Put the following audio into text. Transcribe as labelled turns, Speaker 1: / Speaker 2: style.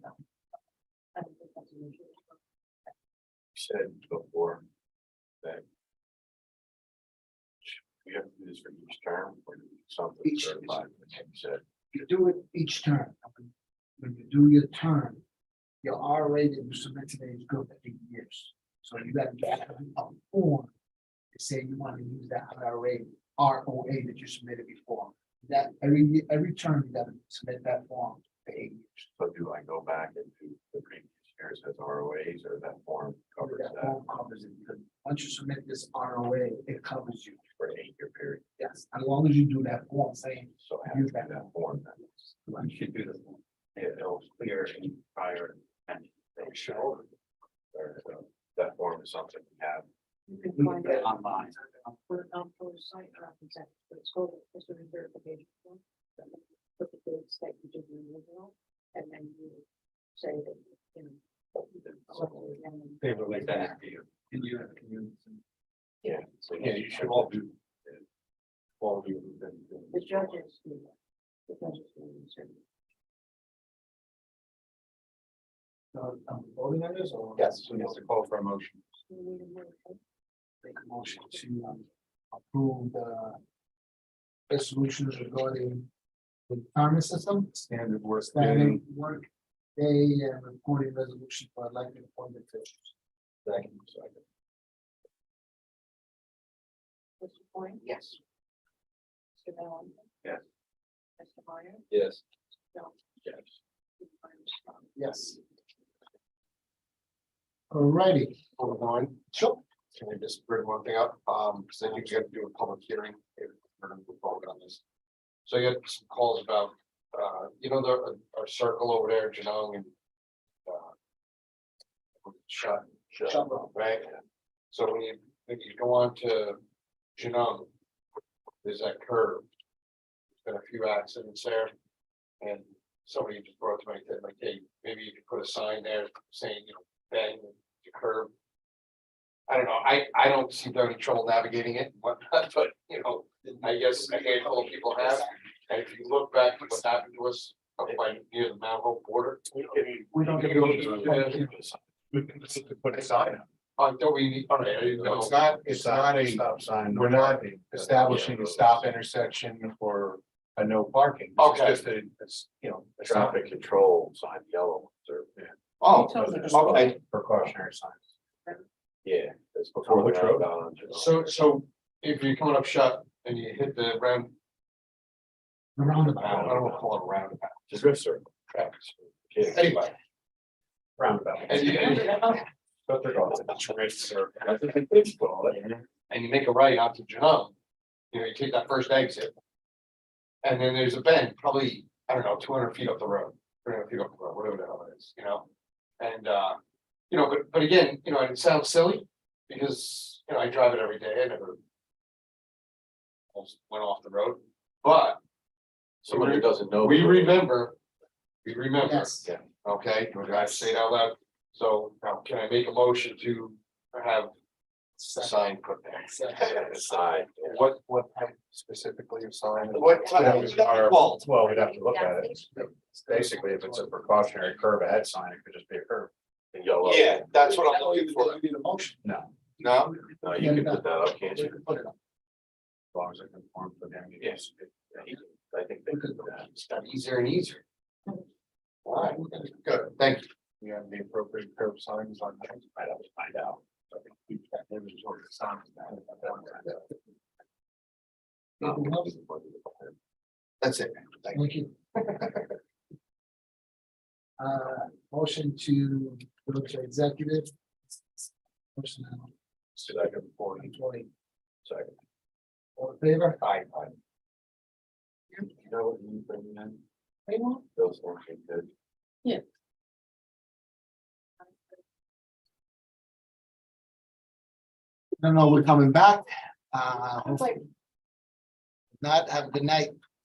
Speaker 1: said before that we have to do this for each term or something
Speaker 2: Each-
Speaker 1: certified, like you said.
Speaker 2: You do it each term. When you do your term, your R rating you submit today is good for eight years. So you got to get a form to say you want to use that R rating, R O A that you submitted before. That every, ye- every term you got to submit that form for eight years.
Speaker 1: So do I go back and do the previous years as ROAs or that form covers
Speaker 2: That
Speaker 1: that
Speaker 2: form covers it. Because Once you submit this R O A, it covers you.
Speaker 1: for an eight year period?
Speaker 2: Yes, as long as you do that form saying
Speaker 1: So I have to do that form then.
Speaker 3: We should do the form.
Speaker 1: It was clear in prior and they should. Or so that form is something we have.
Speaker 4: You can
Speaker 2: we
Speaker 4: find
Speaker 2: can
Speaker 4: out
Speaker 2: get
Speaker 3: online.
Speaker 4: what an for site represents, but it's called a customer verification form. So you Put the dates that you did the original, and then you say that, you know. you did something, and then-
Speaker 3: They relate that to you. Can you, can you?
Speaker 1: Yeah, so yeah, you should all do. All do. them- them-
Speaker 4: The judges. do that. The judges. do it, so
Speaker 2: So I'm um, voting on this or?
Speaker 3: Yes, so it's a call for a motion.
Speaker 4: you need a motion.
Speaker 2: make a motion to um, approve the resolutions regarding the retirement system,
Speaker 3: Standard work.
Speaker 2: standing
Speaker 5: Mm-hmm.
Speaker 2: work day and reporting resolution for elected appointed officials.
Speaker 4: Mr. Point? Yes. Mr. Mellon?
Speaker 1: Yes.
Speaker 4: Mr. Meyer?
Speaker 3: Yes.
Speaker 4: No.
Speaker 1: Yes.
Speaker 2: Yes. Alrighty,
Speaker 6: Hold on,
Speaker 2: sure,
Speaker 6: can I just bring one thing up? Um, because I think you have to do a public hearing. if we're gonna move forward on this. So you had some calls about, uh, you know, the, our circle over there, Janong and. uh, Shut,
Speaker 2: Shut Road.
Speaker 6: right? So when you, when you go on to Janong. There's that curve. There's Been a few accidents there. And somebody just brought to my, head, like, hey, maybe you could put a sign there saying, you know, bang the curb. I don't know, I, I don't seem to have any trouble navigating it, but, but, you know, I guess a handful of people have. And if you look back, at what happened to us up by near the Mount Hope border,
Speaker 2: we don't get to.
Speaker 5: Put a sign up.
Speaker 6: on, don't we, all right, you
Speaker 5: No,
Speaker 6: know,
Speaker 5: it's not, it's not a
Speaker 1: Stop sign.
Speaker 5: we're not establishing a stop intersection or a no parking. It's
Speaker 6: Okay.
Speaker 5: Just a, it's, you know. a sign.
Speaker 1: Traffic control sign, yellow, or,
Speaker 5: Oh,
Speaker 6: okay.
Speaker 5: okay, precautionary signs.
Speaker 1: yeah, that's
Speaker 5: For
Speaker 1: before the
Speaker 5: which road?
Speaker 1: road.
Speaker 6: so, so if you're coming up shut and you hit the round,
Speaker 2: The
Speaker 6: I don't
Speaker 2: roundabout,
Speaker 6: know, what to call it a roundabout,
Speaker 1: Just go circle. Traffic. circle. Yeah,
Speaker 6: anyway.
Speaker 1: Roundabout.
Speaker 6: And you, and you-
Speaker 1: But they're all- That's what they call it.
Speaker 6: and you make a right out to John, you know, you take that first exit. And then there's a bend, probably, I don't know, two hundred feet up the road, three hundred feet up the road, whatever the hell it is, you know? And, uh, you know, but, but again, you know, and it sounds silly, because, you know, I drive it every day, I never. Almost went off the road, but. So
Speaker 1: Someone who doesn't know.
Speaker 6: we remember, we remember,
Speaker 2: yes,
Speaker 6: okay, do I have to say it out loud? So now can I make a motion to have a
Speaker 2: Second,
Speaker 6: sign put there?
Speaker 2: second.
Speaker 1: Side.
Speaker 5: What, what type specifically of sign?
Speaker 6: What type of-
Speaker 5: Our- Well, we'd have to look at it. It's Basically, if it's a precautionary curve ahead sign, it could just be a curve.
Speaker 1: And yellow.
Speaker 6: Yeah, that's what I'm looking for.
Speaker 2: You Need a motion.
Speaker 6: No,
Speaker 1: No, Uh, you can put that up, can't
Speaker 2: We
Speaker 1: you?
Speaker 2: can put it up.
Speaker 5: As long as it conforms to the MUD.
Speaker 1: Yes. I think they could do that.
Speaker 6: it's got easier and easier. All right, good, thank you.
Speaker 5: We have the appropriate curb signs on. I'd have to find out.
Speaker 2: Anything else?
Speaker 6: That's it. Thank you.
Speaker 2: Thank you. Uh, motion to go to executive. Personnel,
Speaker 1: Second, four,
Speaker 2: employee,
Speaker 1: second.
Speaker 2: all in favor?
Speaker 1: Aye, aye. You know what you bring in,
Speaker 2: Anyone?
Speaker 1: those weren't good.
Speaker 2: No, no, we're coming back. Uh,
Speaker 4: Like,
Speaker 2: not have a good night.